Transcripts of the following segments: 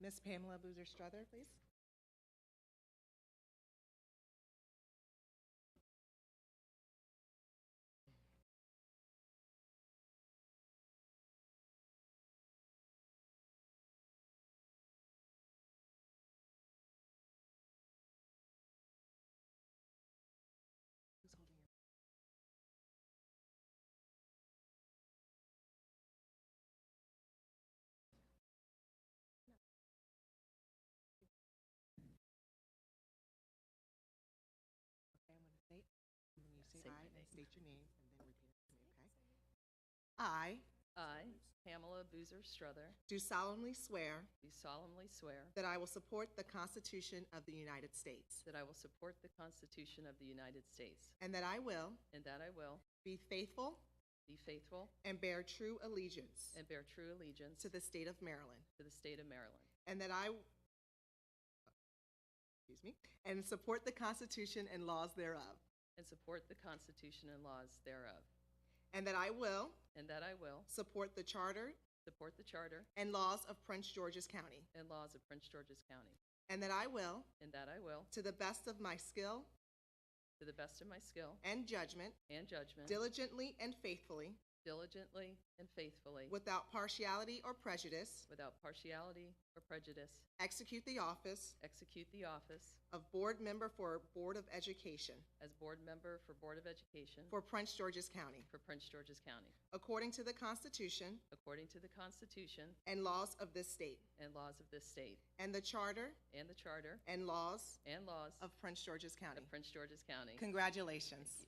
Ms. Pamela Boozer Struther, please. Who's holding your? Okay, I'm going to say, it, and then you say Say my aye and name. state your name, and then repeat after me, okay? I I, Pamela Boozer Struther, do solemnly swear do solemnly swear that I will support the Constitution of the United States, that I will support the Constitution of the United States and that I will and that I will be faithful be faithful and bear true allegiance and bear true allegiance to the state of Maryland, to the state of Maryland and that I, excuse me, and support the Constitution and laws thereof, and support the Constitution and laws thereof, and that I will and that I will support the Charter support the Charter and laws of Prince George's County, and laws of Prince George's County, and that I will, and that I will, to the best of my skill to the best of my skill and judgment, and judgment, diligently and faithfully, diligently and faithfully, without partiality or prejudice, without partiality or prejudice, execute the office execute the office of Board Member for Board of Education as Board Member for Board of Education for Prince George's County, for Prince George's County, according to the Constitution according to the Constitution and laws of this state, and laws of this state, and the Charter and the Charter and laws and laws of Prince George's County. of Prince George's County. Congratulations.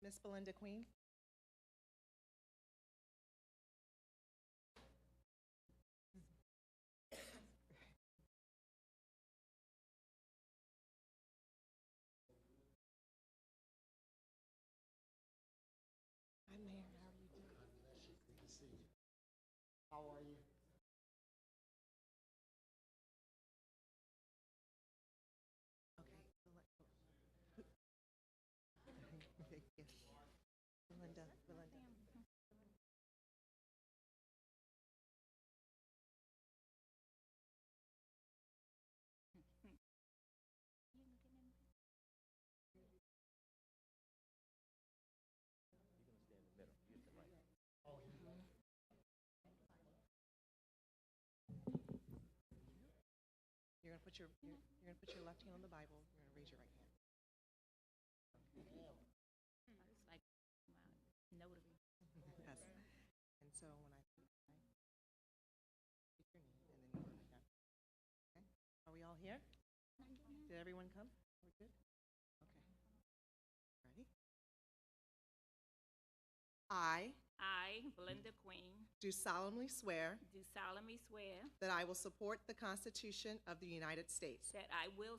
Miss Belinda Queen? Hi, Mayor. How are you doing? How are you? Okay. Belen- Yes. Belinda, Belinda. You're gonna put your, you're you're gonna put your left hand on the Bible, you're gonna raise your right hand. like wow, notary. Yes. And so when I, say aye, take your knee and then you put it down. Okay? Are we all here? Did everyone come? We're good? Okay. Ready? I I, Belinda Queen, do solemnly swear do solemnly swear that I will support the Constitution of the United States that I will